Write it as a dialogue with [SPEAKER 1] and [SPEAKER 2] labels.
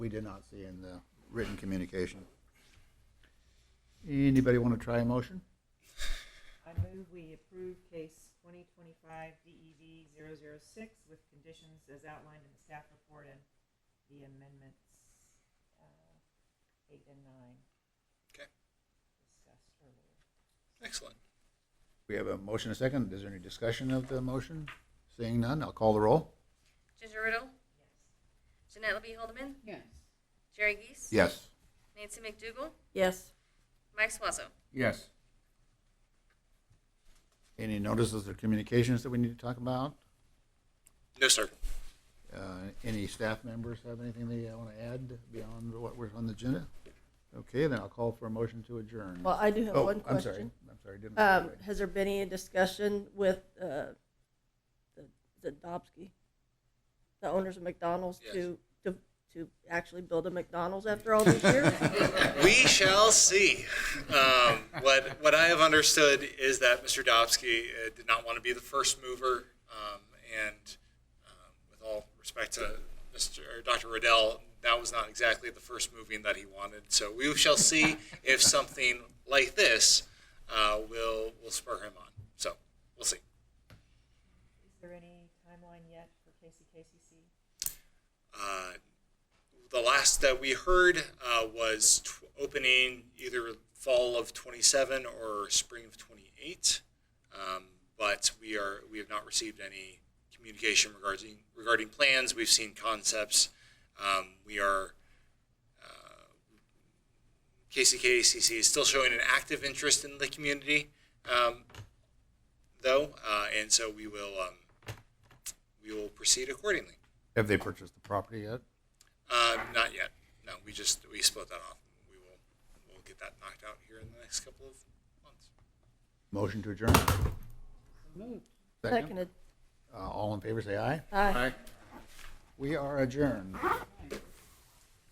[SPEAKER 1] we did not see in the written communication. Anybody want to try a motion?
[SPEAKER 2] I move we approve case twenty twenty-five E DEV 6 with conditions as outlined in the staff report and the amendments, uh, eight and nine
[SPEAKER 3] Okay,
[SPEAKER 2] discussed earlier.
[SPEAKER 3] excellent.
[SPEAKER 1] We have a motion and a second. Is there any discussion of the motion? Seeing none, I'll call the roll.
[SPEAKER 4] Ginger Riddle,
[SPEAKER 2] Yes.
[SPEAKER 4] Jeanette LeBee Holdeman,
[SPEAKER 5] yes,
[SPEAKER 4] Jerry Geese,
[SPEAKER 1] Yes.
[SPEAKER 4] Nancy McDougal,
[SPEAKER 6] yes,
[SPEAKER 4] Mike Swazo.
[SPEAKER 1] Yes. Any notices or communications that we need to talk about?
[SPEAKER 3] No, sir.
[SPEAKER 1] Uh, Any staff members have anything they want to add beyond what was on the agenda? Okay, then I'll call for a motion to adjourn.
[SPEAKER 6] well, I do have
[SPEAKER 1] Oh,
[SPEAKER 6] one
[SPEAKER 1] I'm sorry.
[SPEAKER 6] question.
[SPEAKER 1] I'm sorry, didn't.
[SPEAKER 6] Um, has there been any discussion with, uh, the, the Dobsky? The owners of McDonald's
[SPEAKER 3] Yes.
[SPEAKER 6] to, to, to actually build a McDonald's after all these years?
[SPEAKER 3] We shall see. Um, what what I have understood is that Mr. Dobsky uh, did not want to be the first mover, um, and um, with all respect to Mr. or Dr. Riddell, that was not exactly the first moving that he wanted. So we shall see if something like this uh, will will spur him on. So we'll see.
[SPEAKER 2] Is there any timeline yet for KCKCC?
[SPEAKER 3] Uh, the last that we heard uh, was tw- opening either fall of 27 or spring of 28. Um, but we are we have not received any communication regarding regarding plans. We've seen concepts. Um, we are uh, KCKCC is still showing an active interest in the community, um, though, uh, and so we will um, we will proceed accordingly.
[SPEAKER 1] Have they purchased the property yet?
[SPEAKER 3] Uh, not yet. No, we just we split that off. We will we'll get that knocked out here in the next couple of months.
[SPEAKER 1] Motion to adjourn.
[SPEAKER 5] moved.
[SPEAKER 1] Second.
[SPEAKER 6] Seconded.
[SPEAKER 1] Uh, All in favor, say aye.
[SPEAKER 6] Aye.
[SPEAKER 1] We are adjourned.